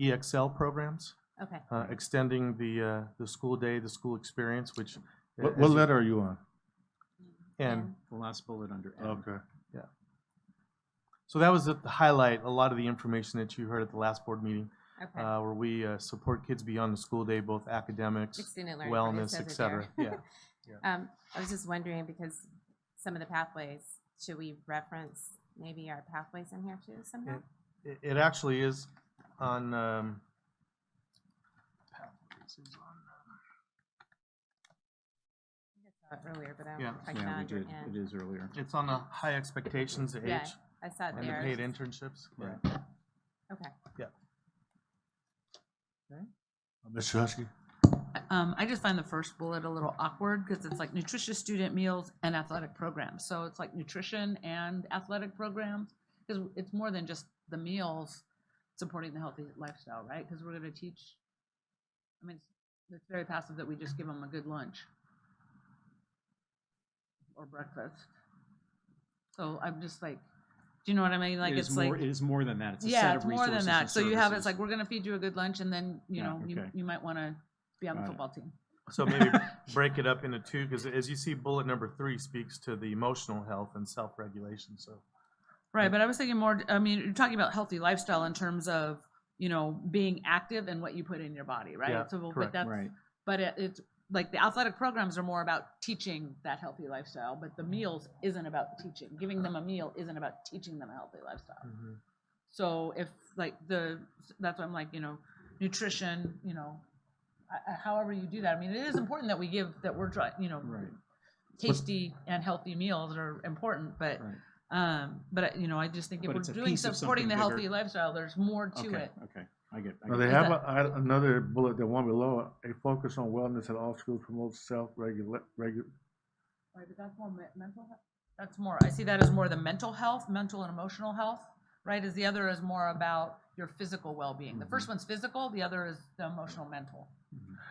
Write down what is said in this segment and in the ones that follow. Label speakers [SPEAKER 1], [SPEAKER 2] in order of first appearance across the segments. [SPEAKER 1] EXL E programs,
[SPEAKER 2] Okay.
[SPEAKER 1] uh, extending the, uh, the school day, the school experience, which.
[SPEAKER 3] What,
[SPEAKER 1] as
[SPEAKER 3] what
[SPEAKER 1] you-
[SPEAKER 3] letter are you on?
[SPEAKER 1] And,
[SPEAKER 2] Yeah.
[SPEAKER 4] The last bullet under M.
[SPEAKER 3] Okay.
[SPEAKER 1] so that was the highlight, a lot of the information that you heard at the last board meeting,
[SPEAKER 2] Okay.
[SPEAKER 1] uh, where we, uh, support kids beyond the school day, both academics,
[SPEAKER 2] Student learning. but it
[SPEAKER 1] wellness,
[SPEAKER 2] says
[SPEAKER 1] et
[SPEAKER 2] it
[SPEAKER 1] cetera, yeah.
[SPEAKER 2] there. Um, I was just wondering, because some of the pathways, should we reference maybe our pathways in here too somehow?
[SPEAKER 1] It, it actually is on, um,
[SPEAKER 2] Uh, Earlier, but I don't
[SPEAKER 1] Yeah.
[SPEAKER 2] know if I
[SPEAKER 4] Yeah, we
[SPEAKER 2] found it
[SPEAKER 4] did. It
[SPEAKER 2] in.
[SPEAKER 4] is earlier.
[SPEAKER 1] it's on the high expectations age
[SPEAKER 2] Yeah, I saw it
[SPEAKER 1] and the
[SPEAKER 2] there.
[SPEAKER 1] paid internships.
[SPEAKER 4] Right.
[SPEAKER 2] Okay.
[SPEAKER 3] Mr. Husky?
[SPEAKER 5] Um, I just find the first bullet a little awkward because it's like nutritious student meals and athletic programs. So it's like nutrition and athletic programs because it's more than just the meals supporting the healthy lifestyle, right? Because we're going to teach. I mean, it's, it's very passive that we just give them a good lunch or breakfast. So I'm just like, do you know what I mean? Like
[SPEAKER 4] It is
[SPEAKER 5] it's
[SPEAKER 4] more-
[SPEAKER 5] like
[SPEAKER 4] It is more than that. It's a
[SPEAKER 5] yeah,
[SPEAKER 4] set
[SPEAKER 5] it's
[SPEAKER 4] of
[SPEAKER 5] more than
[SPEAKER 4] resources
[SPEAKER 5] that.
[SPEAKER 4] and
[SPEAKER 5] So you have
[SPEAKER 4] services.
[SPEAKER 5] it's like we're going to feed you a good lunch and then you
[SPEAKER 4] Yeah,
[SPEAKER 5] know you,
[SPEAKER 4] okay.
[SPEAKER 5] you might want to be on the
[SPEAKER 4] Got it.
[SPEAKER 5] football team.
[SPEAKER 1] So maybe break it up into two, because as you see, bullet number three speaks to the emotional health and self-regulation, so.
[SPEAKER 5] Right, but I was thinking more, I mean, you're talking about healthy lifestyle in terms of, you know, being active and what you put in your body, right?
[SPEAKER 1] Yeah,
[SPEAKER 5] So, well,
[SPEAKER 1] correct.
[SPEAKER 5] but that's,
[SPEAKER 4] Right.
[SPEAKER 5] but it, it's like the athletic programs are more about teaching that healthy lifestyle, but the meals isn't about teaching. Giving them a meal isn't about teaching them a healthy lifestyle.
[SPEAKER 3] Mm-hmm.
[SPEAKER 5] So if like the, that's why I'm like, you know, nutrition, you know, I- I- however you do that. I mean, it is important that we give, that we're trying, you know,
[SPEAKER 4] Right.
[SPEAKER 5] tasty and healthy meals are important, but
[SPEAKER 4] Right.
[SPEAKER 5] um, but you know, I just think if
[SPEAKER 4] But
[SPEAKER 5] we're
[SPEAKER 4] it's a
[SPEAKER 5] doing
[SPEAKER 4] piece of
[SPEAKER 5] supporting the
[SPEAKER 4] something
[SPEAKER 5] healthy
[SPEAKER 4] bigger.
[SPEAKER 5] lifestyle, there's more to
[SPEAKER 4] Okay.
[SPEAKER 5] it.
[SPEAKER 4] Okay. I get. I
[SPEAKER 3] Now,
[SPEAKER 4] get
[SPEAKER 3] they
[SPEAKER 4] it.
[SPEAKER 5] Is
[SPEAKER 3] have
[SPEAKER 5] that-
[SPEAKER 3] a, I- another bullet, the one below, it. a focus on wellness at all schools promotes self-regulate, regu-
[SPEAKER 5] Right, but that's more mental health. That's more. I see that as more the mental health, mental and emotional health. Right, is the other is more about your physical well-being. The
[SPEAKER 4] Mm-hmm.
[SPEAKER 5] first one's physical, the other is the emotional, mental.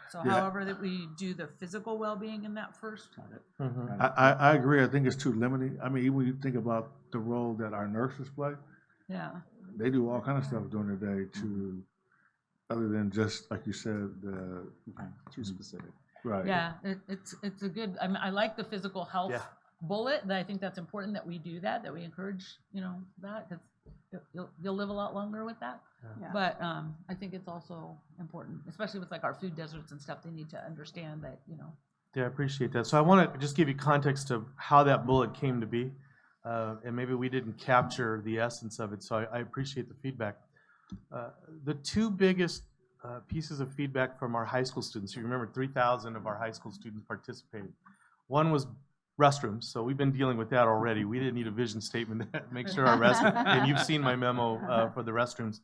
[SPEAKER 5] So,
[SPEAKER 3] Yeah.
[SPEAKER 5] however that we do the physical well-being in that first.
[SPEAKER 4] Got it.
[SPEAKER 1] Mhm.
[SPEAKER 3] I, I, I agree, I think it's too limiting. I mean, even when you think about the role that our nurses play,
[SPEAKER 5] Yeah.
[SPEAKER 3] they do all kind of stuff during the day to, other than just, like you said, the, Mm-hmm.
[SPEAKER 4] Okay. Too specific.
[SPEAKER 3] right.
[SPEAKER 5] Yeah, it, it's, it's a good, I mean, I like the physical health
[SPEAKER 1] Yeah.
[SPEAKER 5] bullet, that I think that's important that we do that, that we encourage, you know, that, because you'll, you'll live a lot longer with that.
[SPEAKER 2] Yeah.
[SPEAKER 5] But, um, I think it's also important, especially with like our food deserts and stuff, they need to understand that, you know.
[SPEAKER 1] Yeah, I appreciate that. So I want to just give you context of how that bullet came to be, uh, and maybe we didn't capture the essence of it, so I, I appreciate the feedback. Uh, The two biggest uh, pieces of feedback from our high school students, you remember 3,000 of our high school students participated. One was restrooms, so we've been dealing with that already. We didn't need a vision statement to make sure our rest, and you've seen my memo uh, for the restrooms.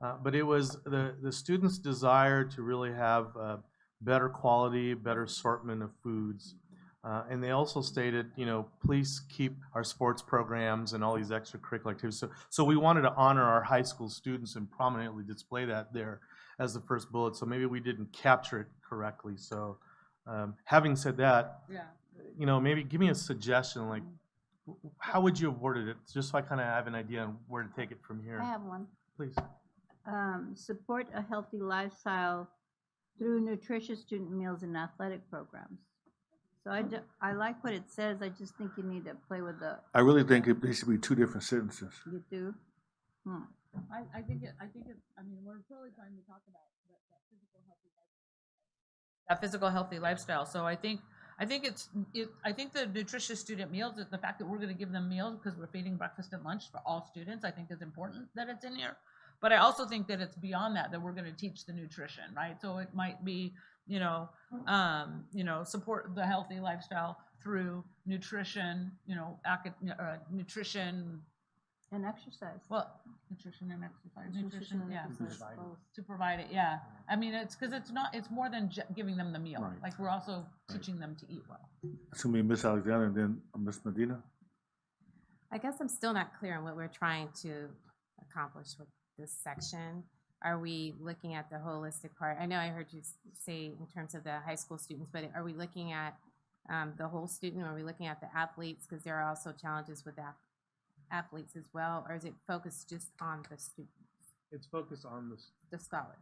[SPEAKER 1] Uh, But it was the, the students' desire to really have uh, better quality, better assortment of foods. Uh, and they also stated, you know, please keep our sports programs and all these extracurricular activities. So, so we wanted to honor our high school students and prominently display that there as the first bullet. So maybe we didn't capture it correctly. So, um, having said that,
[SPEAKER 5] Yeah.
[SPEAKER 1] you know, maybe give me a suggestion, like, w- w- how would you have worded it, just so I kind of have an idea on where to take it from here.
[SPEAKER 6] I have one.
[SPEAKER 1] Please.
[SPEAKER 6] Um, support a healthy lifestyle through nutritious student meals and athletic programs. So I, ju- I like what it says, I just think you need to play with the,
[SPEAKER 3] I really think it, they should be two different sentences.
[SPEAKER 6] you do. Hmm.
[SPEAKER 5] I, I think it, I think it, I mean, we're really trying to talk about that, that physical healthy lifestyle. That physical healthy lifestyle, so I think, I think it's, it, I think the nutritious student meals, is the fact that we're gonna give them meals because we're feeding breakfast and lunch for all students, I think is important that it's in here. But I also think that it's beyond that, that we're gonna teach the nutrition, right? So it might be, you know, um, you know, support the healthy lifestyle through nutrition, you know, acad, uh, nutrition,
[SPEAKER 6] And exercise.
[SPEAKER 5] well, nutrition and exercise, nutrition,
[SPEAKER 6] and
[SPEAKER 5] yeah, so
[SPEAKER 6] exercise,
[SPEAKER 5] it's
[SPEAKER 6] both.
[SPEAKER 5] to provide it, yeah. I mean, it's, because it's not, it's more than ju- giving them the meal.
[SPEAKER 4] Right.
[SPEAKER 5] Like, we're also teaching them to eat well.
[SPEAKER 3] It's gonna be Miss Alexander and then Miss Medina.
[SPEAKER 2] I guess I'm still not clear on what we're trying to accomplish with this section. Are we looking at the holistic part? I know I heard you s- say in terms of the high school students, but are we looking at um, the whole student? Are we looking at the athletes? Because there are also challenges with ath- athletes as well, or is it focused just on the students?
[SPEAKER 7] It's focused on this.
[SPEAKER 1] the scholars.